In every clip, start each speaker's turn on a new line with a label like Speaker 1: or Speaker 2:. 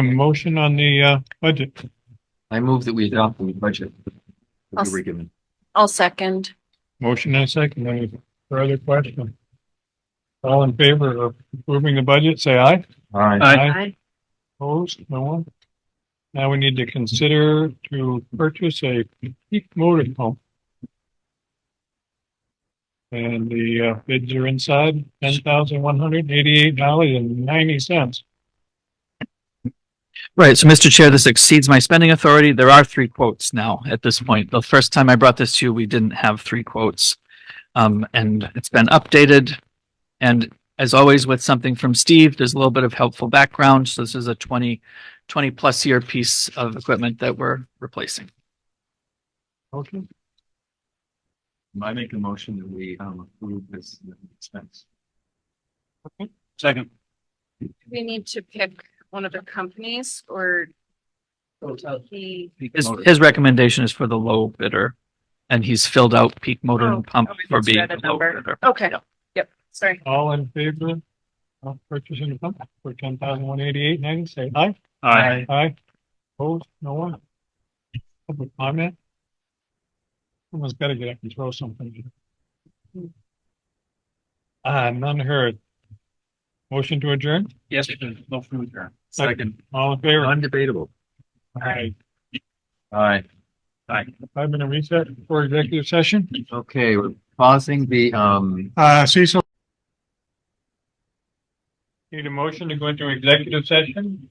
Speaker 1: A motion on the uh budget.
Speaker 2: I move that we adopt the budget. that we
Speaker 3: I'll s-
Speaker 2: were given.
Speaker 3: I'll second.
Speaker 1: Motion and a second. Any further question? All in favor of approving the budget, say aye.
Speaker 2: All right.
Speaker 1: Aye.
Speaker 3: Aye.
Speaker 1: Opposed, no one? Now we need to consider to purchase a peak motor pump. And the uh, bids are inside, ten thousand one hundred eighty-eight dollars and ninety cents.
Speaker 4: Right, so Mr. Chair, this exceeds my spending authority. There are three quotes now at this point. The first time I brought this to you, we didn't have three quotes. Um, and it's been updated. And as always with something from Steve, there's a little bit of helpful background. So this is a 20 20 plus year piece of equipment that we're replacing.
Speaker 1: Okay,
Speaker 2: I make a motion that we um approve this expense.
Speaker 5: Second.
Speaker 3: We need to pick one of the companies or he.
Speaker 4: His, his recommendation is for the low bidder. And he's filled out peak motor
Speaker 3: Oh,
Speaker 4: and pump
Speaker 3: oh, I
Speaker 4: for
Speaker 3: just
Speaker 4: being
Speaker 3: read a
Speaker 4: the low
Speaker 3: number.
Speaker 4: bidder.
Speaker 3: Okay,
Speaker 4: Yeah.
Speaker 3: yep, sorry.
Speaker 1: all in favor of purchasing the pump for ten thousand one eighty-eight ninety, say aye.
Speaker 5: Aye.
Speaker 1: Aye. Opposed, no one? Public comment? Someone's gotta get up and throw something. Ah, none heard. Motion to adjourn,
Speaker 5: Yes, no food here.
Speaker 1: Second. all in favor?
Speaker 2: Undebatable.
Speaker 1: Aye.
Speaker 2: All right.
Speaker 1: Five minute reset for executive session.
Speaker 2: Okay, we're pausing the um.
Speaker 1: Uh, Cecil. Need a motion to go into executive session?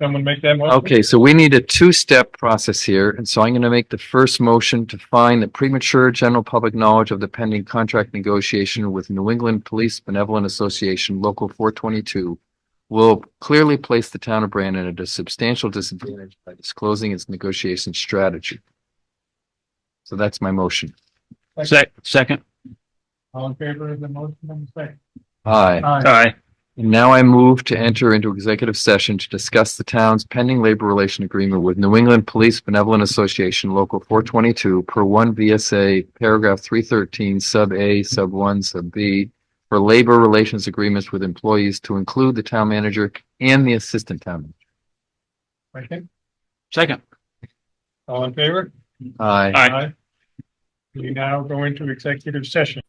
Speaker 1: Someone make that motion?
Speaker 2: Okay, so we need a two-step process here, and so I'm gonna make the first motion to find that premature general public knowledge of the pending contract negotiation with New England Police Benevolent Association Local four twenty-two will clearly place the town of Brandon at a substantial disadvantage by disclosing its negotiation strategy. So that's my motion.
Speaker 5: Sec, second.
Speaker 1: All in favor of the motion, I'm saying.
Speaker 2: Aye.
Speaker 1: Aye.
Speaker 5: Aye.
Speaker 2: And now I move to enter into executive session to discuss the town's pending labor relation agreement with New England Police Benevolent Association Local four twenty-two per one VSA paragraph three thirteen sub A sub one sub B for labor relations agreements with employees to include the town manager and the assistant town.
Speaker 1: Second,
Speaker 5: Second.
Speaker 1: all in favor?
Speaker 2: manager. Aye.
Speaker 5: Aye.
Speaker 1: We now go into executive session.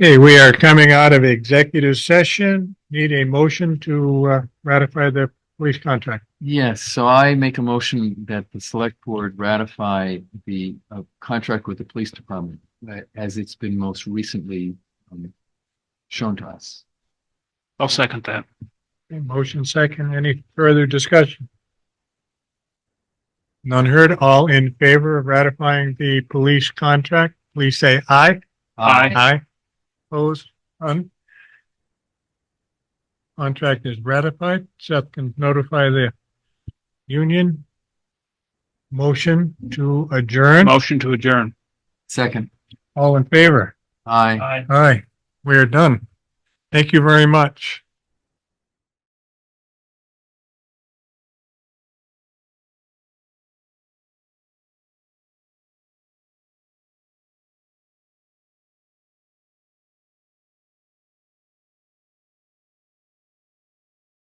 Speaker 1: Okay, we are coming out of executive session. Need a motion to uh, ratify the police contract.
Speaker 2: Yes, so I make a motion that the select board ratify the uh, contract with the police department uh, as it's been most recently um, shown to us.
Speaker 5: I'll second that.
Speaker 1: Okay, Motion second, any further discussion? None heard, all in favor of ratifying the police contract, please say aye.
Speaker 5: Aye.
Speaker 1: Aye. Opposed, none. Contract is ratified. Seth can notify the union. Motion to adjourn.
Speaker 5: Motion to adjourn.
Speaker 2: Second.
Speaker 1: All in favor?
Speaker 2: Aye.
Speaker 5: Aye.
Speaker 1: Aye. We are done. Thank you very much.